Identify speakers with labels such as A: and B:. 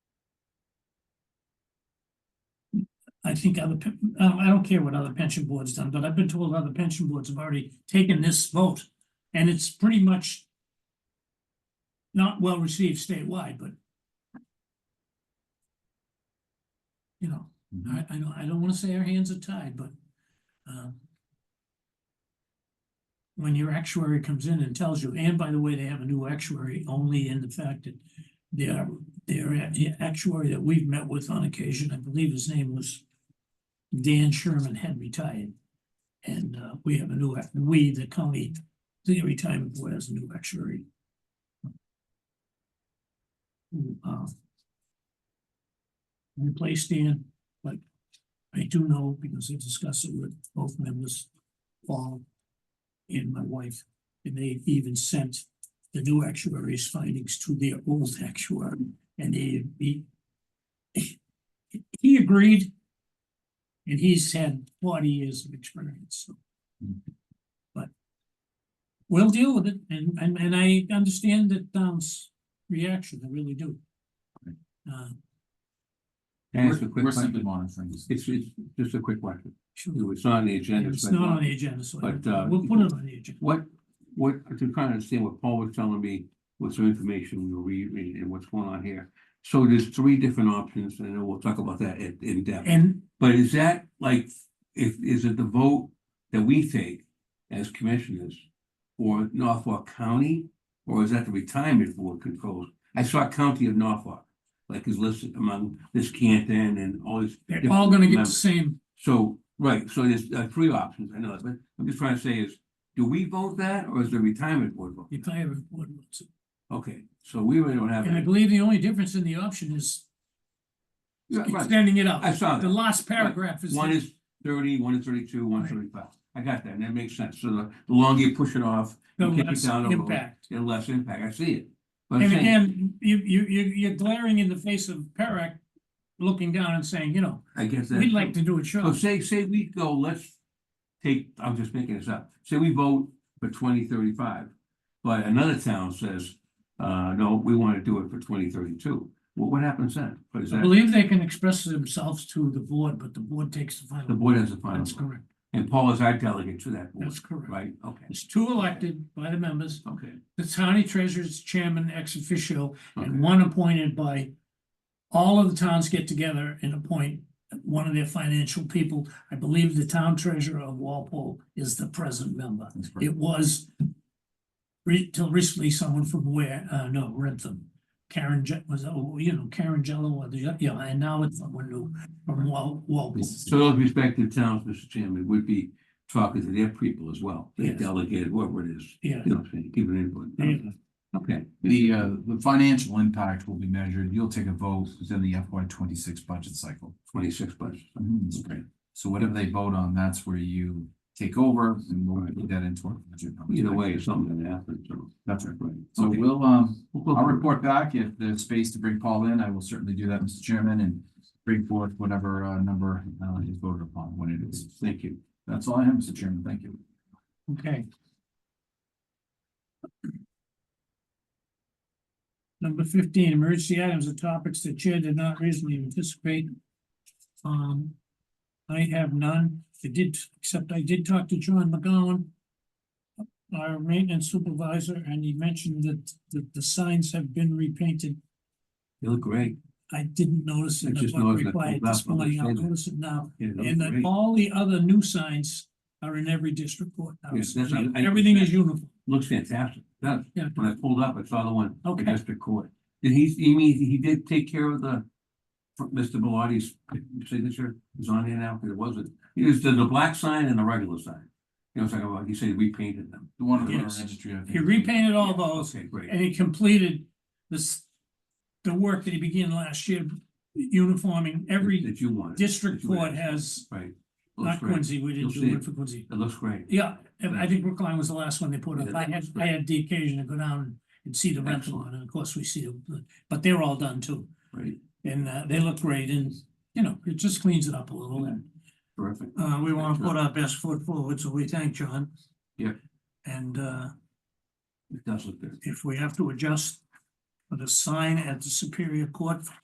A: I think other, pe- I don't- I don't care what other pension boards done, but I've been told other pension boards have already taken this vote. And it's pretty much not well received statewide, but you know,
B: Mm-hmm.
A: I, I know, I don't wanna say our hands are tied, but um when your actuary comes in and tells you, and by the way, they have a new actuary only in the fact that their, their a- actuary that we've met with on occasion, I believe his name was Dan Sherman had retired. And uh, we have a new, act- we, the county, the retirement board has a new actuary. Who, uh, Replaced Dan, but I do know because I discussed it with both members, Paul and my wife, and they even sent the new actuary's findings to their old actuary, and he, he he agreed, and he's had forty years of experience, so. But we'll deal with it, and, and, and I understand that Dom's reaction, I really do.
B: Right.
A: Uh,
B: Can I ask a quick
C: We're simply
B: question?
C: monitoring. this.
B: It's, it's just a quick question.
A: sure,
B: It's not on the agenda.
A: it's
B: so I
A: not on
B: want-
A: the agenda, so
B: But, uh,
A: we'll put it on the agenda.
B: What, what, I'm trying to understand what Paul was telling me, with some information we were reading and what's going on here. So there's three different options, and then we'll talk about that in, in depth.
A: And
B: But is that like, if, is it the vote that we take as commissioners for Norfolk County? Or is that the retirement board controls? I saw County of Norfolk, like is listed among this Canton and all these.
A: they're all gonna get the
B: members.
A: same,
B: So, right, so there's uh three options, I know, that, but I'm just trying to say is, do we vote that or is the retirement board vote?
A: if I ever would, so.
B: Okay, so we really don't have.
A: And I
B: any-
A: believe the only difference in the option is
B: Yeah, right,
A: extending it out.
B: I saw
A: The
B: that.
A: last paragraph is.
B: One is thirty, one is thirty-two, one is thirty-five. I got that, and that makes sense. So the the longer you push it off,
A: the
B: you kick it
A: less
B: down the road.
A: Impact.
B: the less impact. I see it. But I'm
A: And
B: saying,
A: again, you, you, you, you're glaring in the face of Perec, looking down and saying, you know,
B: I guess that.
A: we'd like to do it
B: So
A: short.
B: say, say we go, let's take, I'm just making this up, say we vote for twenty thirty-five. But another town says, uh, no, we want to do it for twenty thirty-two. Well, what happens then? What is
A: I
B: that?
A: believe they can express themselves to the board, but the board takes the
B: The
A: final.
B: board has a final,
A: That's
B: vote.
A: correct.
B: and Paul is our delegate to that board,
A: That's correct.
B: right? Okay,
A: It's two elected by the members,
B: okay,
A: the county treasurer's chairman ex officio,
B: okay,
A: and one appointed by all of the towns get together and appoint one of their financial people. I believe the town treasurer of Walpole is the present member.
C: That's correct.
A: It was re- till recently someone from where, uh, no, Rentham. Karen Je- was, oh, you know, Karen Jello, or the, you know, and now it's someone new from Wal- Walpole.
B: So those respective towns, Mr. Chairman, would be talking to their people as well, their
A: Yes.
B: delegated, whatever it is,
A: Yeah.
B: you know, what I'm saying, giving input.
A: Yeah.
B: Okay,
C: The, uh, the financial impact will be measured, you'll take a vote within the FY twenty-six budget cycle.
B: twenty-six bucks. Okay.
C: So whatever they vote on, that's where you take over and we'll put that into our budget. numbers.
B: Either way, something gonna happen, so.
C: That's right.
B: Right.
C: So
B: Okay.
C: we'll, um,
B: We'll go
C: I'll
B: through it.
C: report back if there's space to bring Paul in, I will certainly do that, Mr. Chairman, and bring forth whatever, uh, number, uh, is voted upon when it is.
B: Thank you.
C: That's all I have, Mr. Chairman, thank you.
A: Okay. Number fifteen, emergency items and topics the chair did not reasonably anticipate. Um, I have none. I did, except I did talk to John McGowan, our maintenance supervisor, and he mentioned that, that the signs have been repainted.
B: You look great.
A: I didn't notice it,
B: I just
A: I was
B: noticed that
A: required
B: pulled
A: this
B: up when
A: morning.
B: they
A: I'll
B: said that.
A: notice it now.
B: Yeah, you look
A: And then
B: great.
A: all the other new signs are in every district court. now.
B: Yes, that's- I- I-
A: Everything is uniform.
B: Looks fantastic. That,
A: Yeah.
B: when I pulled up, I saw the one. for
A: Okay.
B: District Court. Did he, you mean, he did take care of the, for Mr. Bellardi's signature is on there now, because it wasn't. He just did the black sign and the regular sign. You know, it's like, well, he said we painted them.
C: The one in the
A: Yes.
C: registry, I think.
A: He repainted all those
B: Okay, great.
A: and he completed this, the work that he began last year, uniforming every
B: That you wanted.
A: district
B: that you would
A: court
B: ask.
A: has,
B: Right. Looks
A: not
B: great.
A: Quincy, we didn't
B: You'll
A: do
B: see
A: one
B: it.
A: for Quincy.
B: It looks great.
A: Yeah, and I think Brookline was the last one they put up.
B: Yeah,
A: I had,
B: that's
A: I
B: great.
A: had the occasion to go down and see the rental one,
B: Excellent.
A: and of course we see them, but they're all done too.
B: Right.
A: And uh, they look great and, you know, it just cleans it up a little and
B: Terrific.
A: Uh, we wanna
B: Thank
A: put our best foot forward, so we thank John.
B: Yeah.
A: And, uh,
B: It does look good.
A: if we have to adjust for the sign at the Superior Court